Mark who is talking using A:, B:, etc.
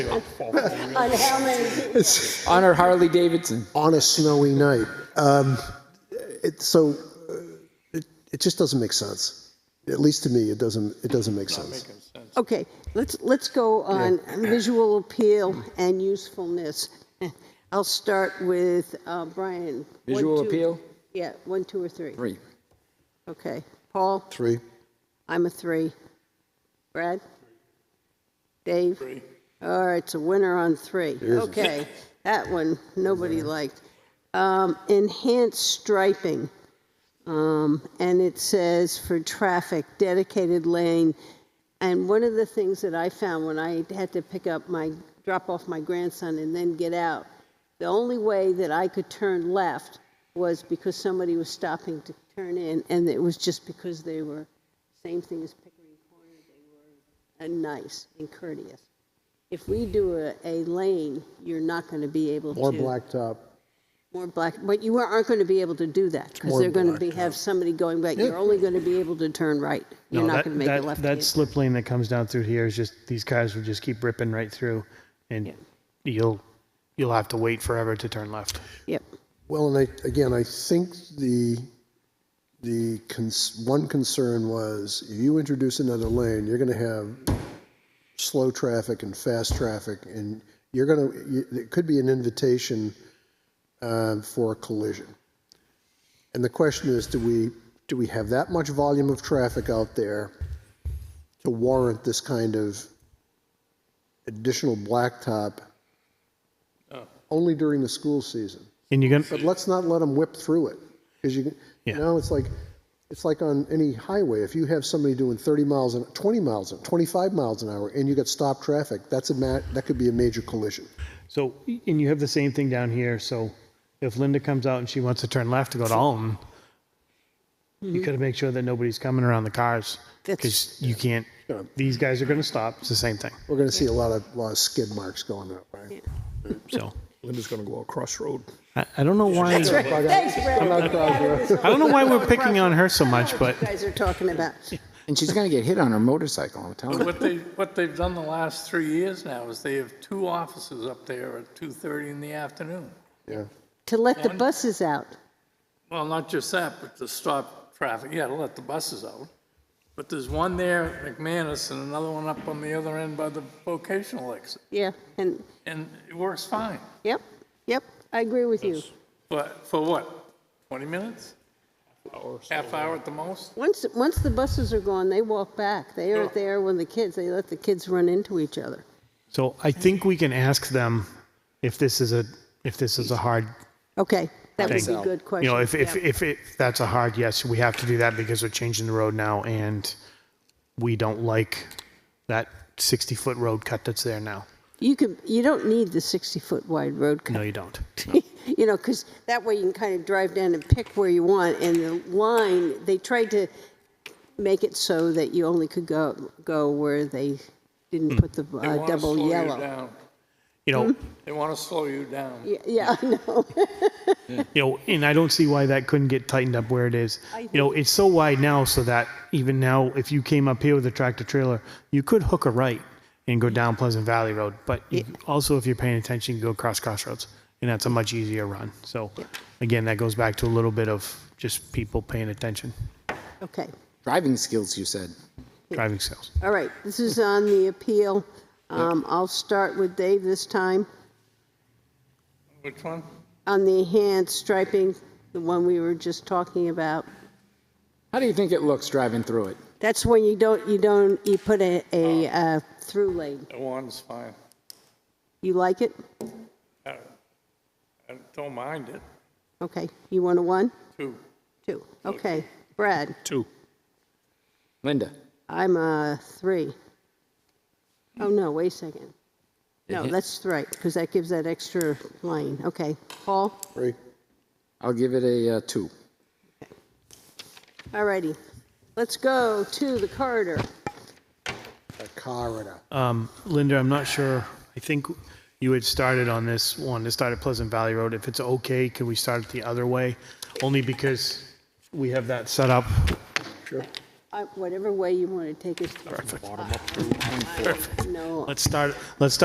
A: on how many,
B: on our Harley Davidson.
C: on a snowy night. Um, it, so uh, it, it just doesn't make sense. At least to me, it doesn't. It doesn't make sense.
A: okay, let's, let's go on visual appeal and usefulness. I'll start with uh, Brian. One,
B: Visual
A: two-
B: appeal?
A: Yeah, one, two, or three.
B: Three.
A: Okay. Paul,
C: Three.
A: I'm a three. Brad? Dave? Three. All right, it's a winner on three. Okay, that one, nobody liked. Um, Enhanced striping. Um, And it says for traffic, dedicated lane. And one of the things that I found when I had to pick up my, drop off my grandson and then get out, the only way that I could turn left was because somebody was stopping to turn in, and it was just because they were, same thing as Pickering Corner, they were uh, nice and courteous. If we do a, a lane, you're not going to be able to.
C: More blacktop.
A: More black, but you aren't going to be able to do that because they're going to be, have somebody going back. You're only going to be able to turn right. You're
D: No,
A: not
D: that-
A: going to make a
D: that-
A: left.
D: That
A: hand.
D: slip lane that comes down through here is just, these cars will just keep ripping right through and you'll, you'll have to wait forever to turn left.
A: Yep.
C: Well, and I, again, I think the the cons, one concern was if you introduce another lane, you're going to have slow traffic and fast traffic, and you're going to you, it could be an invitation um, for a collision. And the question is, do we do we have that much volume of traffic out there to warrant this kind of additional blacktop only during the school season?
D: And you're
C: But
D: gonna,
C: let's not let them whip through it, because you, you
D: Yeah.
C: know, it's like, it's like on any highway, if you have somebody doing thirty miles an, twenty miles an, twenty-five miles an hour, and you got stopped traffic, that's a ma, that could be a major collision.
D: so, and you have the same thing down here, so if Linda comes out and she wants to turn left to go to Alton,
A: Mm-hmm.
D: you gotta make sure that nobody's coming around the cars, because you can't, these guys are gonna stop, it's the same thing,
C: We're gonna see a lot of, lot of skid marks going that way.
D: so.
E: Linda's going to go across road.
D: I, I don't know why, I
A: Thanks, Brad.
D: don't know why we're picking on her so much, but
A: You guys are talking about.
B: And she's going to get hit on her motorcycle, I'm telling you.
F: What they, what they've done the last three years now is they have two offices up there at 2:30 in the afternoon.
C: Yeah,
A: To let the buses out.
F: Well, not just that, but to stop traffic, yeah, to let the buses out. But there's one there at McManus and another one up on the other end by the vocational exit,
A: Yeah. And,
F: and it works fine.
A: yep, yep, I agree with you.
F: But for what, 20 minutes? Half hour at the most?
A: Once, once the buses are gone, they walk back. They aren't there when the kids, they let the kids run into each other.
D: So I think we can ask them if this is a, if this is a hard,
A: Okay, that would be
D: Thank
A: a good
D: you know,
A: question.
D: if, if, if it- if that's a hard yes, we have to do that because we're changing the road now and we don't like that 60-foot road cut that's there now.
A: You could, you don't need the 60-foot wide road cut.
D: No, you don't.
A: you know, because that way you can kind of drive down and pick where you want. And the line, they tried to make it so that you only could go go where they didn't put the
F: They
A: uh,
F: wanna
A: double
F: slow you
A: yellow.
F: down.
D: You know,
F: They want to slow you down.
A: Yeah, yeah, I know.
D: you know, and I don't see why that couldn't get tightened up where it is. You know, it's so wide now so that even now, if you came up here with a tractor trailer, you could hook a right and go down Pleasant Valley Road. But you- also, if you're paying attention, you go across Crossroads, and that's a much easier run. So, again, that goes back to a little bit of just people paying attention,
A: Okay,
B: Driving skills, you said.
D: driving sales.
A: all right. This is on the appeal. Um, I'll start with Dave this time
F: Which one?
A: on the hand striping, the one we were just talking about.
B: How do you think it looks driving through it?
A: That's when you don't you don't you put a, a uh, through lane.
F: The one's fine.
A: You like it?
F: I don't mind it,
A: Okay. You want a one,
F: too.
A: two? Okay. Brad.
E: Two.
B: Linda?
A: I'm a three. Oh, no, wait a second. No, that's right, because that gives that extra line. Okay, Paul?
C: right?
B: I'll give it a uh, two.
A: All righty. Let's go to the corridor.
C: A car and a,
D: Linda, I'm not sure. I think you had started on this one, to start at Pleasant Valley Road. If it's okay, could we start it the other way? Only because we have that set up.
A: I- Whatever way you want to take us. Bottom up. No,
D: Let's start, let's start